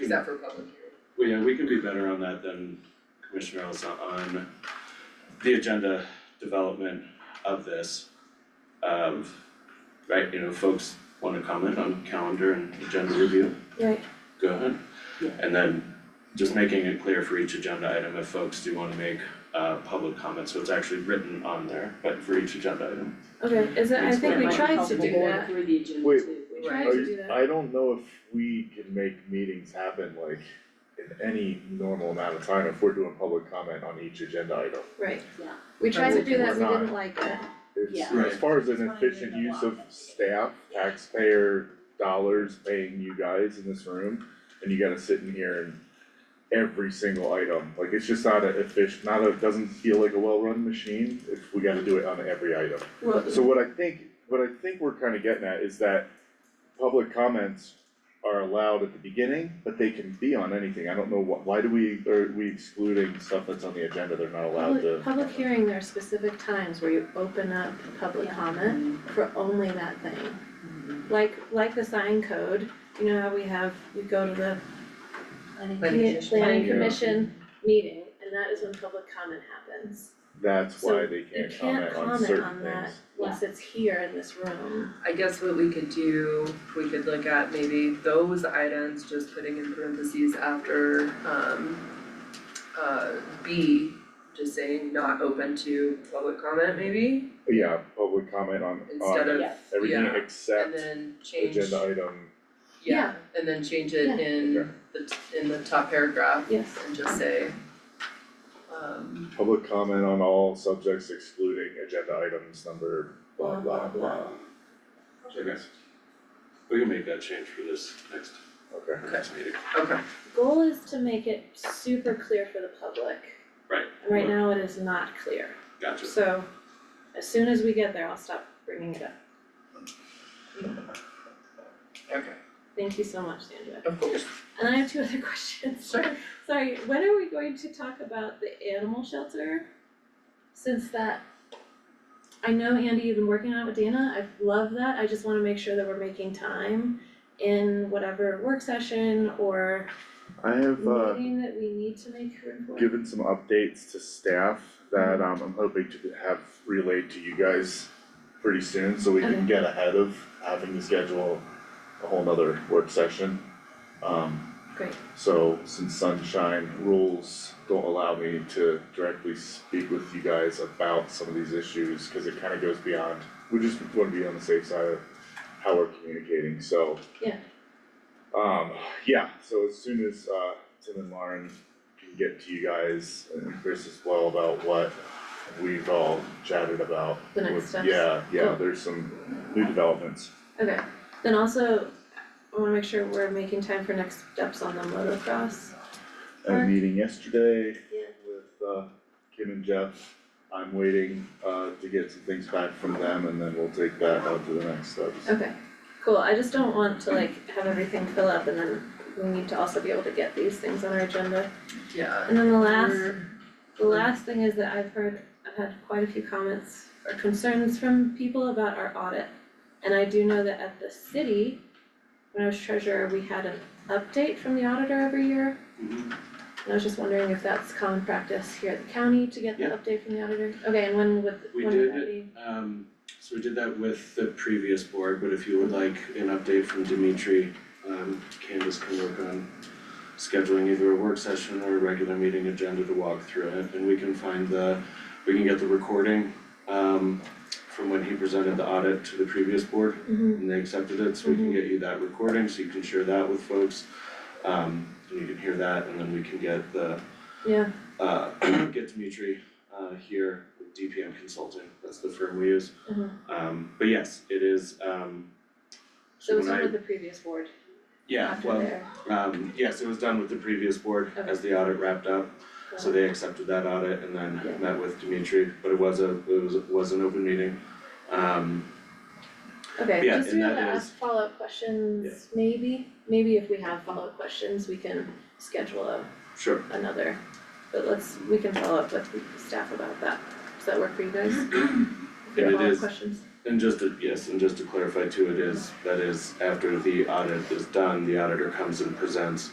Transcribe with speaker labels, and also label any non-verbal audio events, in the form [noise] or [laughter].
Speaker 1: Is that for public hearing?
Speaker 2: Well, yeah, we can be better on that than Commissioner Elsa on the agenda development of this. Of, right, you know, folks wanna comment on calendar and agenda review,
Speaker 3: Right.
Speaker 2: go ahead.
Speaker 1: Yeah.
Speaker 2: And then just making it clear for each agenda item if folks do wanna make uh public comments, so it's actually written on there, but for each agenda item.
Speaker 3: Okay, is it, I think we
Speaker 4: Might
Speaker 3: tried
Speaker 4: help
Speaker 3: to
Speaker 4: the
Speaker 3: do
Speaker 4: board
Speaker 3: that,
Speaker 4: through the agenda
Speaker 5: Wait.
Speaker 4: too.
Speaker 3: we
Speaker 1: Right.
Speaker 3: tried to do that,
Speaker 5: I don't know if we can make meetings happen like in any normal amount of time if we're doing public comment on each agenda item.
Speaker 3: right.
Speaker 4: Yeah.
Speaker 3: We tried to do that, we
Speaker 5: We're not.
Speaker 3: didn't like it,
Speaker 5: It's,
Speaker 2: Yeah.
Speaker 5: as far as an efficient use of staff, taxpayer dollars paying you guys in this room, and you gotta sit in here and every single item, like it's just not a efficient, not a, doesn't feel like a well-run machine if we gotta do it on every item.
Speaker 3: well,
Speaker 5: So what I think, what I think we're kinda getting at is that public comments are allowed at the beginning, but they can be on anything, I don't know what, why do we, are we excluding stuff that's on the agenda, they're not allowed to.
Speaker 3: public, public hearing, there are specific times where you open up public comment for only that thing. Like, like the sign code, you know how we have, we go to the commu- planning
Speaker 5: Yeah.
Speaker 3: commission meeting, and that is when public comment happens.
Speaker 5: That's
Speaker 3: So
Speaker 5: why they
Speaker 3: You
Speaker 5: can't
Speaker 3: can't
Speaker 5: comment on certain things.
Speaker 3: comment on that unless it's here in this room.
Speaker 1: I guess what we could do, we could look at maybe those items, just putting in parentheses after um uh B, just saying not open to public comment maybe,
Speaker 5: Yeah, public comment on
Speaker 1: instead
Speaker 5: on
Speaker 1: of,
Speaker 4: yeah.
Speaker 5: everything
Speaker 1: yeah, and
Speaker 5: except
Speaker 1: then change,
Speaker 5: agenda item,
Speaker 1: yeah, and then change it
Speaker 3: Yeah.
Speaker 5: Okay.
Speaker 1: in the t- in the top paragraph
Speaker 3: Yes,
Speaker 1: and just say um
Speaker 5: public comment on all subjects excluding agenda items number blah
Speaker 3: Blah,
Speaker 5: blah
Speaker 3: blah,
Speaker 5: blah.
Speaker 2: Okay. We can make that change for this next,
Speaker 5: Okay,
Speaker 2: next meeting.
Speaker 1: okay,
Speaker 3: goal is to make it super clear for the public.
Speaker 2: Right.
Speaker 3: And right now it is not clear.
Speaker 2: Gotcha.
Speaker 3: So as soon as we get there, I'll stop bringing it up.
Speaker 1: okay,
Speaker 3: Thank you so much, Sandra.
Speaker 1: of course,
Speaker 3: And I have two other [laughs] questions.
Speaker 1: sure.
Speaker 3: Sorry, when are we going to talk about the animal shelter? Since that, I know Andy, you've been working on it with Dana, I love that, I just wanna make sure that we're making time in whatever work session or
Speaker 5: I have uh
Speaker 3: meeting that we need to make room for.
Speaker 5: given some updates to staff that um I'm hoping to have relayed to you guys pretty soon, so we
Speaker 3: Okay.
Speaker 5: can get ahead of having to schedule a whole nother work session. Um,
Speaker 3: Great,
Speaker 5: So since sunshine rules don't allow me to directly speak with you guys about some of these issues, cause it kinda goes beyond, we just wanna be on the safe side of how we're communicating, so.
Speaker 3: Yeah.
Speaker 5: Um, yeah, so as soon as uh Tim and Lauren can get to you guys and Chris as well about what we've all chatted about.
Speaker 3: The next
Speaker 5: with-
Speaker 3: steps.
Speaker 5: Yeah, yeah,
Speaker 3: Cool.
Speaker 5: there's some new developments.
Speaker 3: okay, then also, I wanna make sure we're making time for next steps on the motocross.
Speaker 5: I had a
Speaker 3: Or-
Speaker 5: meeting yesterday
Speaker 3: Yeah.
Speaker 5: with uh Kim and Jeff. I'm waiting uh to get some things back from them and then we'll take that out to the next steps.
Speaker 3: Okay, cool, I just don't want to like have everything fill up and then we need to also be able to get these things on our agenda.
Speaker 1: Yeah.
Speaker 3: And then the last,
Speaker 1: We're-
Speaker 3: the last thing is that I've heard, I've had quite a few comments or concerns from people about our audit. And I do know that at the city, when I was treasurer, we had an update from the auditor every year.
Speaker 2: Mhm.
Speaker 3: And I was just wondering if that's common practice here at the county to get the
Speaker 2: Yeah.
Speaker 3: update from the auditor? Okay, and when would,
Speaker 2: We
Speaker 3: when would
Speaker 2: did
Speaker 3: that be?
Speaker 2: it, um, so we did that with the previous board, but if you would like an update from Dimitri, um, Candace can work on scheduling either a work session or a regular meeting agenda to walk through it, and we can find the, we can get the recording, um, from when he presented the audit to the previous board,
Speaker 3: Mhm.
Speaker 2: and they accepted it, so we can get you that recording, so you can share that with folks. Um, and you can hear that, and then we can get the
Speaker 3: yeah,
Speaker 2: uh [clears throat] get Dimitri uh here with DPM Consulting, that's the firm we use.
Speaker 3: uh-huh,
Speaker 2: Um but yes, it is um
Speaker 3: so it was
Speaker 2: when I-
Speaker 3: under the previous board,
Speaker 2: yeah,
Speaker 3: after
Speaker 2: well,
Speaker 3: there.
Speaker 2: um yes, it was done with the previous board
Speaker 3: Okay.
Speaker 2: as the audit wrapped up. So they accepted that audit and
Speaker 3: Yeah.
Speaker 2: then met with Dimitri, but it was a it was was an open meeting. Um
Speaker 3: Okay,
Speaker 2: Yeah,
Speaker 3: just to
Speaker 2: and
Speaker 3: be able to
Speaker 2: that
Speaker 3: ask follow-up questions, maybe, maybe if we have follow-up questions, we can schedule a,
Speaker 2: sure,
Speaker 3: another. But let's, we can follow up with the staff about that, does that work for you guys?
Speaker 2: [clears throat]
Speaker 3: If we
Speaker 2: And it
Speaker 3: have follow-up
Speaker 2: is-
Speaker 3: questions,
Speaker 2: And just to, yes, and just to clarify too, it is, that is, after the audit is done, the auditor comes and presents